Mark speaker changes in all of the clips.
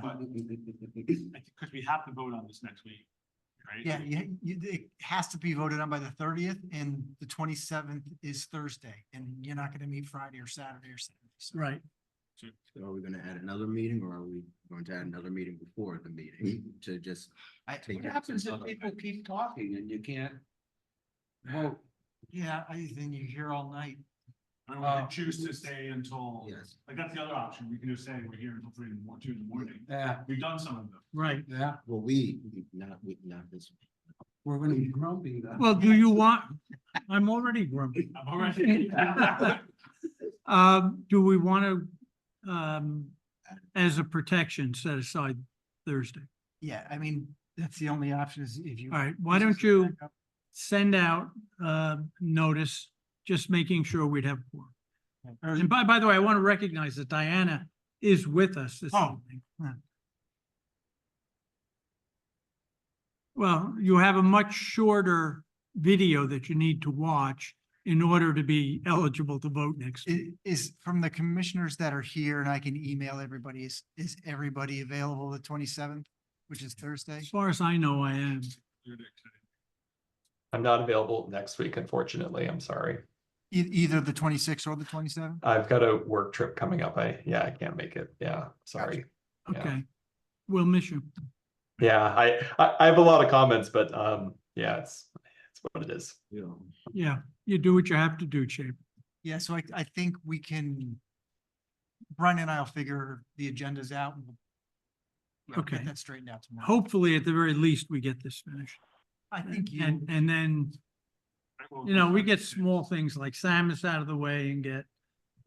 Speaker 1: But-
Speaker 2: Because we have to vote on this next week, right?
Speaker 1: Yeah, yeah, you, it has to be voted on by the thirtieth and the twenty-seventh is Thursday and you're not gonna meet Friday or Saturday or Sunday. so-
Speaker 3: Right.
Speaker 4: So Are we gonna add another meeting or are we going to add another meeting before the meeting
Speaker 3: Hmm.
Speaker 4: to just?
Speaker 1: I,
Speaker 4: take
Speaker 5: What
Speaker 4: it-
Speaker 5: happens if people Oh, keep talking and you can't? vote?
Speaker 1: yeah, I think you're here all night.
Speaker 2: I mean, we can
Speaker 5: Uh,
Speaker 2: choose to stay until,
Speaker 4: Yes,
Speaker 2: like, that's the other option. We can just say we're here until three in the morning, two in the morning.
Speaker 5: yeah,
Speaker 2: We've done some of them.
Speaker 3: Right.
Speaker 5: yeah,
Speaker 4: well, we, not, we, not this.
Speaker 5: we're gonna be grumpy then.
Speaker 3: Well, do you want, I'm already grumpy.
Speaker 2: I've already.
Speaker 3: Um, do we want to, um, as a protection, set aside Thursday?
Speaker 1: Yeah, I mean, that's the only option is if you.
Speaker 3: All right, why don't you send out, uh, notice, just making sure we'd have four. And by, by the way, I want to recognize that Diana is with us this
Speaker 1: Oh,
Speaker 3: evening. Well, you have a much shorter video that you need to watch in order to be eligible to vote next. week.
Speaker 1: I- is from the commissioners that are here and I can email everybody, is, is everybody available the twenty-seventh, which is Thursday?
Speaker 3: As far as I know, I am.
Speaker 6: I'm not available next week, unfortunately. I'm sorry.
Speaker 1: E- either the twenty-sixth or the twenty-seventh?
Speaker 6: I've got a work trip coming up. I, yeah, I can't make it. Yeah, sorry. Yeah.
Speaker 3: Okay. We'll miss you.
Speaker 6: Yeah, I, I, I have a lot of comments, but, um, yeah, it's, it's what it is.
Speaker 4: You know,
Speaker 3: Yeah, you do what you have to do, Chip.
Speaker 1: Yeah, so I, I think we can, Brian and I'll figure the agendas out and we'll
Speaker 3: Okay.
Speaker 1: get that straightened out tomorrow.
Speaker 3: Hopefully, at the very least, we get this finished.
Speaker 1: I think you,
Speaker 3: And, and then You know, we get small things like Samus out of the way and get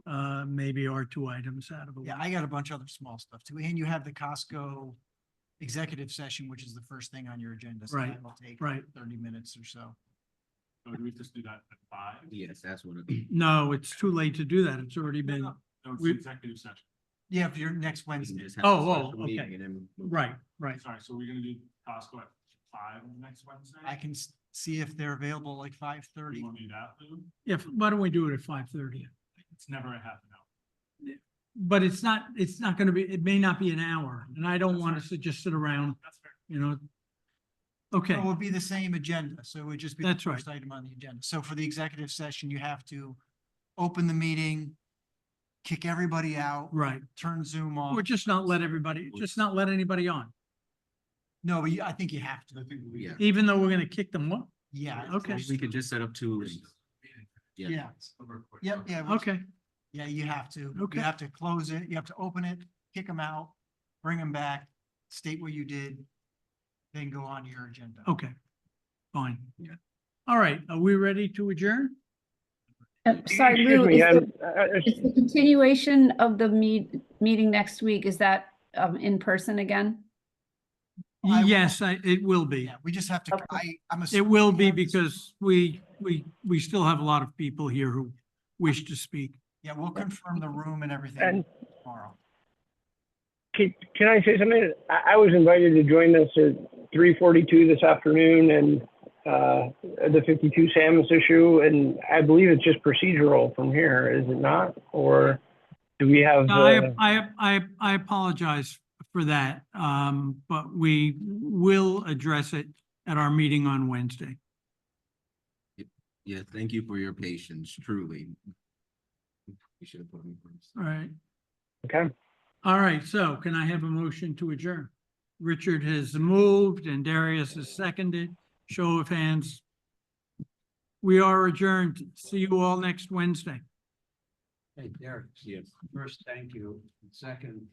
Speaker 3: uh maybe our two items out of the way.
Speaker 1: yeah, I got a bunch of other small stuff too. And you have the Costco executive session, which is the first thing on your agenda. so
Speaker 3: Right,
Speaker 1: that'll take
Speaker 3: right.
Speaker 1: Thirty minutes or so.
Speaker 2: So do we just do that at five?
Speaker 4: Yes, that's what. it-
Speaker 3: No, it's too late to do that. It's already been,
Speaker 2: No, it's
Speaker 3: We-
Speaker 2: executive session.
Speaker 1: Yeah, for your next
Speaker 4: we can
Speaker 1: Wednesday.
Speaker 4: just have a
Speaker 3: Oh, oh,
Speaker 4: special meeting
Speaker 3: okay.
Speaker 4: and then move
Speaker 3: right, right.
Speaker 2: Sorry, so we're gonna do Costco at five next Wednesday?
Speaker 1: I can s- see if they're available like five thirty.
Speaker 2: You wanna do that, Lou?
Speaker 3: If, why don't we do it at five thirty?
Speaker 2: It's never a half an hour.
Speaker 3: But it's not, it's not gonna be, it may not be an hour, and I don't want us to just sit around,
Speaker 2: That's fair.
Speaker 3: you know. Okay,
Speaker 1: It will be the same agenda, so it would just be. the
Speaker 3: That's right.
Speaker 1: first Item on the agenda. So for the executive session, you have to open the meeting, kick everybody out,
Speaker 3: right.
Speaker 1: turn Zoom off.
Speaker 3: Or just not let everybody, just not let anybody on,
Speaker 1: No, but you- I think you have to.
Speaker 2: I think we.
Speaker 4: Yeah.
Speaker 3: even though we're gonna kick them off.
Speaker 1: Yeah.
Speaker 4: on.
Speaker 3: Okay.
Speaker 4: We could just set up two. Yeah.
Speaker 1: Yeah.
Speaker 2: Over quick.
Speaker 1: Yep, yeah. we-
Speaker 3: Okay,
Speaker 1: Yeah, you have to.
Speaker 3: Okay.
Speaker 1: You have to close it. You have to open it, kick them out, bring them back, state what you did, then go on to your agenda.
Speaker 3: okay, fine.
Speaker 4: Yeah.
Speaker 3: All right, are we ready to adjourn?
Speaker 7: Uh, Sorry, Lou,
Speaker 8: Excuse me,
Speaker 7: is
Speaker 8: I'm-
Speaker 7: the-
Speaker 8: uh, uh,
Speaker 7: is the continuation of the meet, meeting next week, is that um, in person again?
Speaker 1: I will-
Speaker 3: Yes, I, it will be.
Speaker 1: Yeah, we just have to, I, I'm.
Speaker 3: It will be
Speaker 1: assuming-
Speaker 3: because we, we, we still have a lot of people here who wish to speak.
Speaker 1: Yeah, we'll confirm the room and everything
Speaker 8: And-
Speaker 1: tomorrow.
Speaker 8: Can, can I say something? I, I was invited to join us at 3:42 this afternoon, and uh, the 52 Samus issue, and I believe it's just procedural from here, is it not? Or do we have? uh,
Speaker 3: I, I, I, I apologize for that, um, but we will address it at our meeting on Wednesday.
Speaker 4: Yeah, thank you for your patience, truly. You should have put me first.
Speaker 3: All right.
Speaker 8: okay.
Speaker 3: All right. So can I have a motion to adjourn? Richard has moved and Darius has seconded. Show of hands. We are adjourned. See you all next Wednesday.
Speaker 5: Hey, Derek,
Speaker 4: Yes.
Speaker 5: first, thank you. Second,